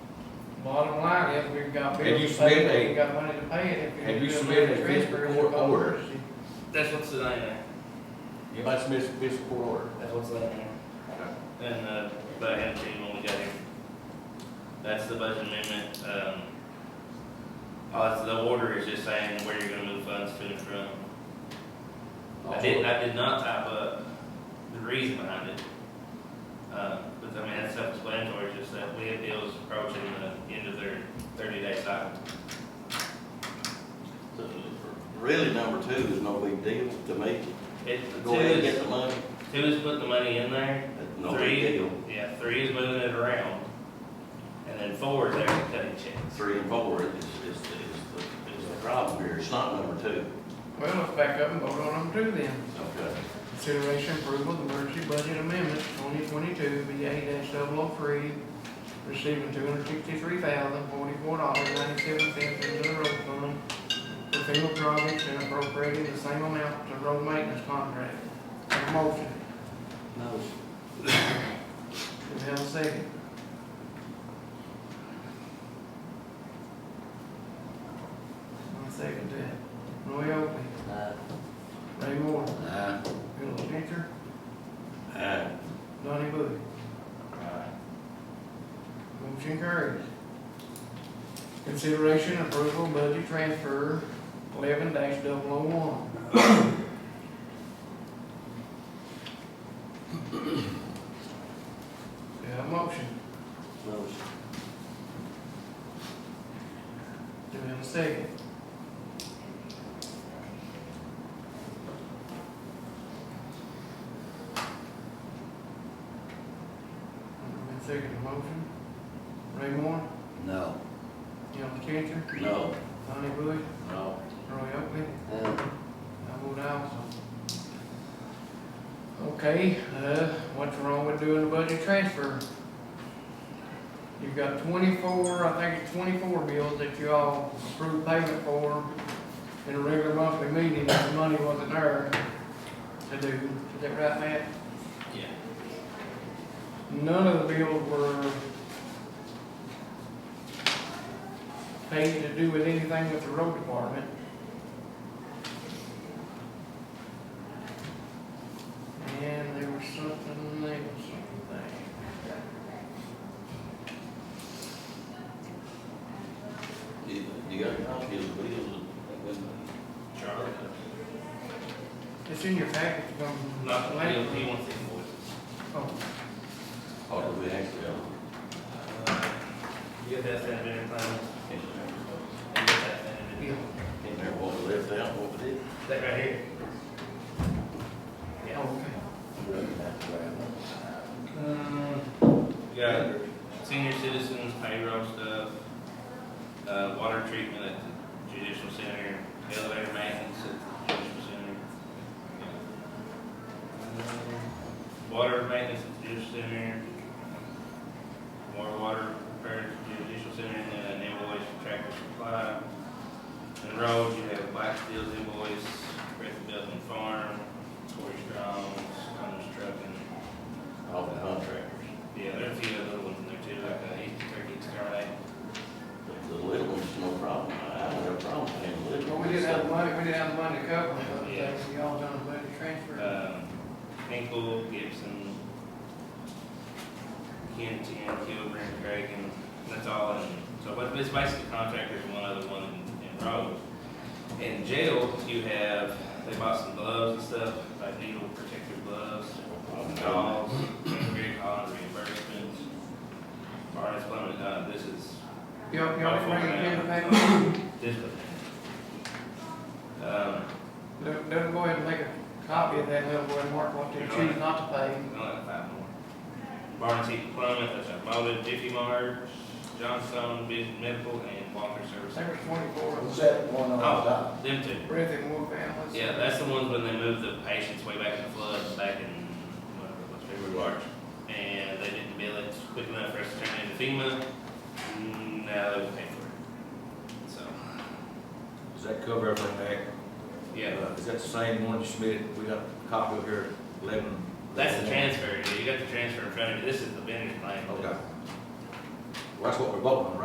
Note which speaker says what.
Speaker 1: Bottom line is, we've got
Speaker 2: Have you
Speaker 1: bills to
Speaker 2: submitted
Speaker 1: pay,
Speaker 2: a-
Speaker 1: we've got money to pay it. If we
Speaker 2: have
Speaker 1: do
Speaker 2: you
Speaker 1: a
Speaker 2: submitted a
Speaker 1: transfer,
Speaker 2: fiscal
Speaker 1: it's a
Speaker 2: court
Speaker 1: cost.
Speaker 2: order?
Speaker 3: That's what's in there.
Speaker 2: Anybody submit a fiscal court order?
Speaker 3: That's what's in there. And, uh, but I had to when we got here. That's the budget amendment, um, oh, it's- the order is just saying where you're gonna move funds to and from. I did, I did not type up the reason behind it. Uh, but I mean, that's self-explanatory, it's just that we have deals approaching the end of their thirty-day cycle.
Speaker 4: Really, number two is no big deal to me.
Speaker 3: It, two
Speaker 4: Go ahead and get
Speaker 3: is,
Speaker 4: the money,
Speaker 3: two is putting the money in there,
Speaker 4: That's no big
Speaker 3: three,
Speaker 4: deal.
Speaker 3: yeah, three is moving it around. And then four is there to cut a check.
Speaker 4: Three and four is, is, is the, is the problem here, it's not number two.
Speaker 1: Well, let's back up and vote on number two then.
Speaker 4: Okay.
Speaker 1: Consideration approval of emergency budget amendment twenty twenty-two VA 3 oh receiving two hundred sixty-three thousand forty-four dollars ninety-seven cents into the road fund for FEMA projects and appropriating the same amount to road maintenance contract. Have a Motion,
Speaker 4: No.
Speaker 1: do we have a second? One second to that. Roy Oakley, Ray Moore,
Speaker 4: Aye.
Speaker 1: Bill Changer,
Speaker 4: Aye.
Speaker 1: Donnie Bush.
Speaker 4: Aye.
Speaker 1: Motion carries. Consideration and approval of budget transfer eleven dash double oh one. Do I have a motion?
Speaker 4: No.
Speaker 1: Do we have a second? Alderman second the motion. Ray Moore,
Speaker 4: No.
Speaker 1: Gil Changer,
Speaker 4: No.
Speaker 1: Donnie Bush,
Speaker 4: No.
Speaker 1: Roy Oakley,
Speaker 4: Aye.
Speaker 1: I vote aye also. Okay, uh, what's wrong with doing a budget transfer? You've got twenty-four, I think it's twenty-four bills that you all approved payment for in a regular monthly meeting, and the money wasn't there to do, is that right, Matt?
Speaker 3: Yeah.
Speaker 1: None of the bills were paid to do with anything with the road department. And there was something, there was something.
Speaker 4: You, you got a copy of the bills?
Speaker 3: Charlie?
Speaker 1: It's in your package from
Speaker 3: Not,
Speaker 1: last
Speaker 3: he, he
Speaker 1: week.
Speaker 3: wants the invoices.
Speaker 1: Oh,
Speaker 4: Or do we actually?
Speaker 3: Uh, You get that sent in every time.
Speaker 4: Can't
Speaker 3: You get that sent in.
Speaker 1: yeah.
Speaker 4: remember what we left out, what we did.
Speaker 3: That right here. Yeah.
Speaker 1: Oh,
Speaker 3: Yeah, senior citizens, payroll stuff, uh, water treatment at the judicial center, elevator maintenance at the judicial center. Um, Water maintenance at the judicial center. More water repair at the judicial center, and then an invoice for tractor supply. And roads, you have Blackfield's invoice, Griffin Building Farm, Corey Strong's, Hunter's Trucking,
Speaker 4: All the contractors.
Speaker 3: yeah, there are a few other little ones in there too, like, uh, East Turkey Exterminator.
Speaker 4: The little one's no problem. I don't have a problem paying the
Speaker 1: okay.
Speaker 4: little
Speaker 1: Well,
Speaker 4: one.
Speaker 1: we didn't have the money, we didn't have the money to cover it, but
Speaker 3: Yeah.
Speaker 1: uh, y'all done a budget transfer.
Speaker 3: Um, Hinkle, Gibson, Kenton, Kilburn, Craig, and that's all. And so, but it's basically contractors, one other one in, in Rome. In jail, you have, they bought some gloves and stuff, like needle protective gloves, dolls, great on reimbursements. Barnes Plumbing, uh, this is
Speaker 1: Y'all, y'all didn't bring it in the package?
Speaker 3: this one. Um,
Speaker 1: Don't, don't go ahead and make a copy of that little boy, mark what they choose not to pay.
Speaker 3: I only have five more. Barnes Heaton Plumbing, that's a Moda, Jiffy Mart, Johnstone Vision Medical, and Walker Service.
Speaker 1: December twenty-four,
Speaker 5: Was that one on
Speaker 2: Oh.
Speaker 5: top?
Speaker 3: Them two.
Speaker 1: Breathitt and Moore families.
Speaker 3: Yeah, that's the ones when they moved the patients way back in the flood, back in, whatever, it was February, March. And they didn't bill it quick enough for us to turn it into FEMA, Mm, now they will pay for it. So,
Speaker 2: Does that cover everything, Mac?
Speaker 3: yeah,
Speaker 2: Uh, Is that the same one you submitted, we got a copy of here, eleven?
Speaker 3: that's the transfer, you got the transfer in front of you, this is the vendor's plan.
Speaker 2: Okay. oh, Well, that's what we're voting on, right?